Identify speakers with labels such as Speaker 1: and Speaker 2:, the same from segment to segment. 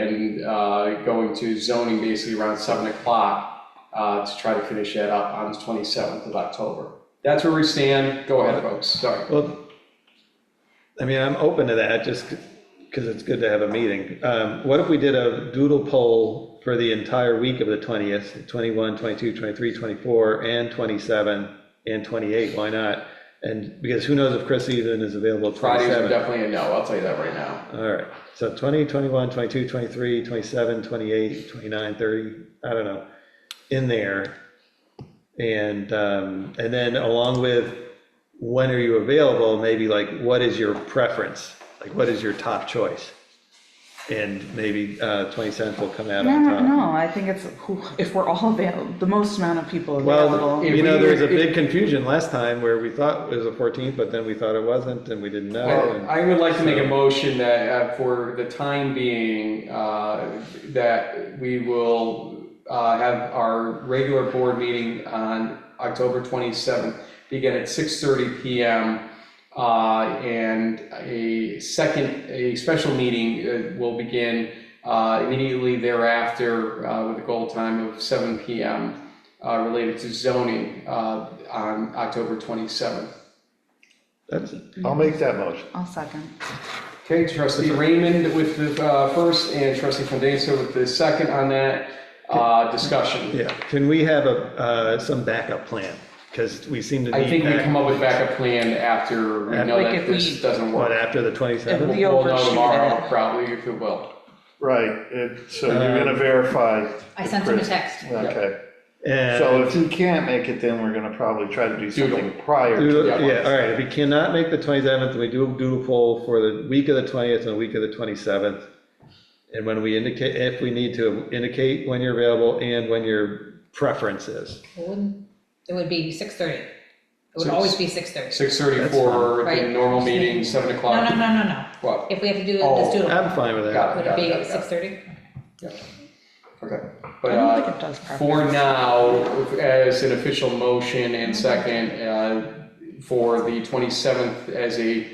Speaker 1: and uh, going to zoning basically around seven o'clock uh, to try to finish that up on the twenty-seventh of October. That's where we stand. Go ahead, folks. Sorry.
Speaker 2: Well, I mean, I'm open to that, just because it's good to have a meeting. Um, What if we did a doodle poll for the entire week of the 20th, 21, 22, 23, 24, and 27, and 28, why not? And, because who knows if Chris even is available
Speaker 1: Fridays are
Speaker 2: 27.
Speaker 1: definitely a no. I'll tell you that right now.
Speaker 2: All right, so 20, 21, 22, 23, 27, 28, 29, 30, I don't know, in there. And, um, and then along with, when are you available, maybe like, what is your preference? Like, what is your top choice? And maybe uh, 20 cents will come out
Speaker 3: No,
Speaker 2: on
Speaker 3: no,
Speaker 2: top.
Speaker 3: no, I think it's, who- if we're all available, the most amount of people
Speaker 2: Well,
Speaker 3: available.
Speaker 1: if
Speaker 2: you know,
Speaker 1: we-
Speaker 2: there was a
Speaker 1: if-
Speaker 2: big confusion last time where we thought it was the 14th, but then we thought it wasn't, and we didn't know. and-
Speaker 1: I would like to make a motion that uh, for the time being, uh, that we will uh, have our regular board meeting on October 27th, begin at 6:30 PM. uh, And a second, a special meeting uh, will begin uh, immediately thereafter uh, with a goal time of 7 PM uh, related to zoning uh, on October 27th.
Speaker 2: That's,
Speaker 4: I'll make that motion.
Speaker 3: I'll second.
Speaker 1: Okay, trustee Raymond with the uh, first and trustee Fandesa with the second on that uh, discussion.
Speaker 2: Yeah, can we have a, uh, some backup plan? Because we seem to need.
Speaker 1: I think we
Speaker 2: that.
Speaker 1: come up with backup plan after we know
Speaker 3: Like
Speaker 1: that
Speaker 3: if we-
Speaker 1: this doesn't
Speaker 2: What,
Speaker 1: work.
Speaker 2: after the
Speaker 3: If
Speaker 1: We'll
Speaker 3: we-
Speaker 2: 27th?
Speaker 1: we'll know
Speaker 3: overshoot
Speaker 1: tomorrow,
Speaker 3: it.
Speaker 1: probably, if it will.
Speaker 4: Right, it- so you're gonna verify.
Speaker 5: I
Speaker 4: the
Speaker 5: sent him a
Speaker 4: Chris-
Speaker 5: text.
Speaker 4: Okay, so
Speaker 2: And,
Speaker 4: if you can't make it, then we're gonna probably try to do
Speaker 1: Doodle.
Speaker 4: something prior to
Speaker 2: doodle-
Speaker 1: yeah.
Speaker 4: that.
Speaker 2: yeah, all right, if we cannot make the 27th, we do a doodle poll for the week of the 20th and the week of the 27th. And when we indicate, if we need to, indicate when you're available and when your preference is.
Speaker 5: It wouldn't, it would be six thirty. It would always be six thirty.
Speaker 1: 6:30
Speaker 2: That's
Speaker 1: for the
Speaker 5: Right.
Speaker 1: normal meeting, 7
Speaker 5: No,
Speaker 1: o'clock.
Speaker 5: no, no, no, no.
Speaker 1: What?
Speaker 5: If we have to do it, let's do it.
Speaker 2: I'm fine with that.
Speaker 1: Got
Speaker 5: Would
Speaker 1: got
Speaker 5: it
Speaker 1: got
Speaker 5: be
Speaker 1: got it.
Speaker 5: six thirty?
Speaker 1: Okay.
Speaker 3: I
Speaker 1: But
Speaker 3: don't
Speaker 1: uh,
Speaker 3: think it does
Speaker 1: for
Speaker 3: preference.
Speaker 1: now, as an official motion and second, uh, for the 27th as a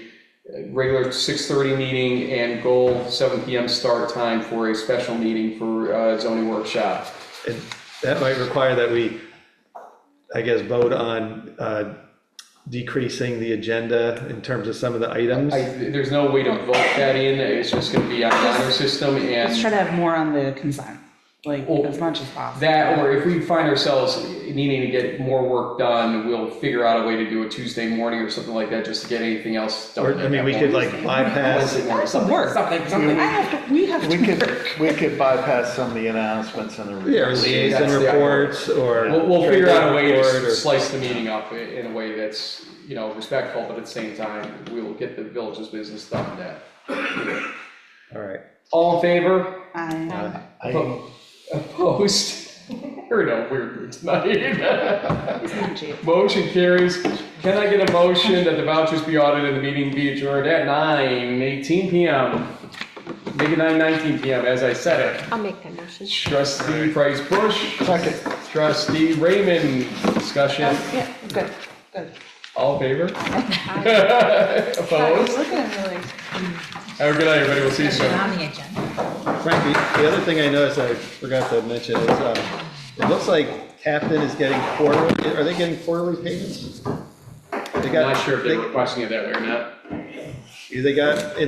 Speaker 1: regular 6:30 meeting and goal 7 PM start time for a special meeting for uh, zoning workshop.
Speaker 2: And that might require that we, I guess, vote on uh, decreasing the agenda in terms of some of the items.
Speaker 1: I, there's no way to vote that in, it's just gonna be on the honor system
Speaker 3: Let's try
Speaker 1: and
Speaker 3: to have more on the consent, like,
Speaker 1: Oh.
Speaker 3: as much as possible.
Speaker 1: that, or if we find ourselves needing to get more work done, we'll figure out a way to do a Tuesday morning or something like that, just to get anything else done.
Speaker 2: Or, I mean, we could like bypass,
Speaker 1: Wednesday morning.
Speaker 3: Some work, something, something, I have to, we have
Speaker 4: We
Speaker 3: to work.
Speaker 4: could, we could bypass some of the announcements and the.
Speaker 2: yeah, or liaison
Speaker 1: That's the idea.
Speaker 2: reports or.
Speaker 1: We'll, we'll figure out a way
Speaker 2: Report or-
Speaker 1: to slice the meeting up i- in a way that's, you know, respectful, but at the same time, we will get the village's business done then.
Speaker 2: All right.
Speaker 1: All in favor?
Speaker 3: I,
Speaker 4: I-
Speaker 1: Opposed? We're in a weird mood tonight.
Speaker 3: it's not cheap.
Speaker 1: Motion carries. Can I get a motion that the vouchers be audited and the meeting be adjourned at nine eighteen PM? Make it nine nineteen PM, as I said it.
Speaker 6: I'll make that motion.
Speaker 1: Trustee Price Bush,
Speaker 4: Second.
Speaker 1: trustee Raymond, discussion,
Speaker 3: Yeah, good, good.
Speaker 1: all in favor?
Speaker 6: Aye.
Speaker 3: I was
Speaker 1: Opposed?
Speaker 3: looking at it like.
Speaker 1: Have a good night, everybody. We'll see you
Speaker 5: It's
Speaker 1: soon.
Speaker 5: not on the agenda.
Speaker 2: Frankie, the other thing I noticed, I forgot to mention is, um, it looks like Captain is getting quarterly, are they getting quarterly payments? They
Speaker 1: I'm
Speaker 2: got,
Speaker 1: not sure if they're requesting it that way or not.
Speaker 2: they- they got, in